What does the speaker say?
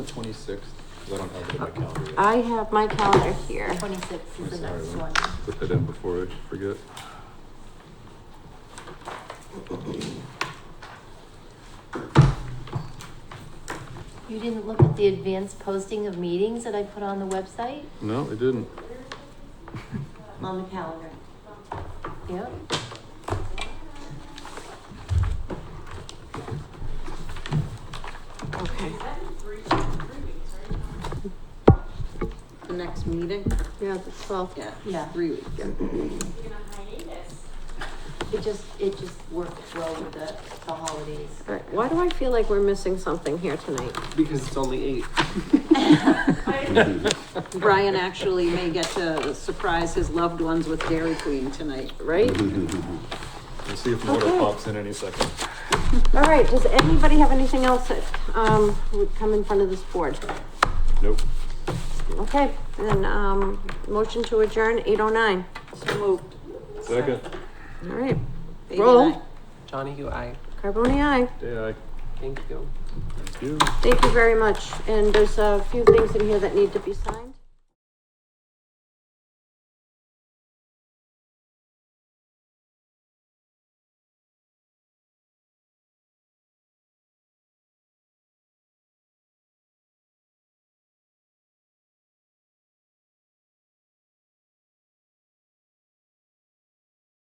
The twenty-sixth, because I don't have it in my calendar yet. I have my calendar here. Twenty-six I'm is the sorry, next let me one. Put that in before I forget. You didn't look at the advanced posting of meetings that I put on the website? No, it didn't. On the calendar. Yep. Okay. The next meeting? Yeah, the twelfth. Yeah. Yeah. Three weeks, yeah. It just, it just worked well with the, the holidays. All right, why do I feel like we're missing something here tonight? Because it's only eight. Brian actually may get to surprise his loved ones with Dairy Queen tonight. Right? We'll see if Mona Okay. pops in any second. All right, does anybody have anything else that, um, would come in front of this board? Nope. Okay, then, um, motion to adjourn, eight oh nine. So moved. Second. All right, Baby Roll. night. Johnny, you, I, Carboni, aye. Day I. thank you. Thank you. Thank you very much, and there's a few things in here that need to be signed.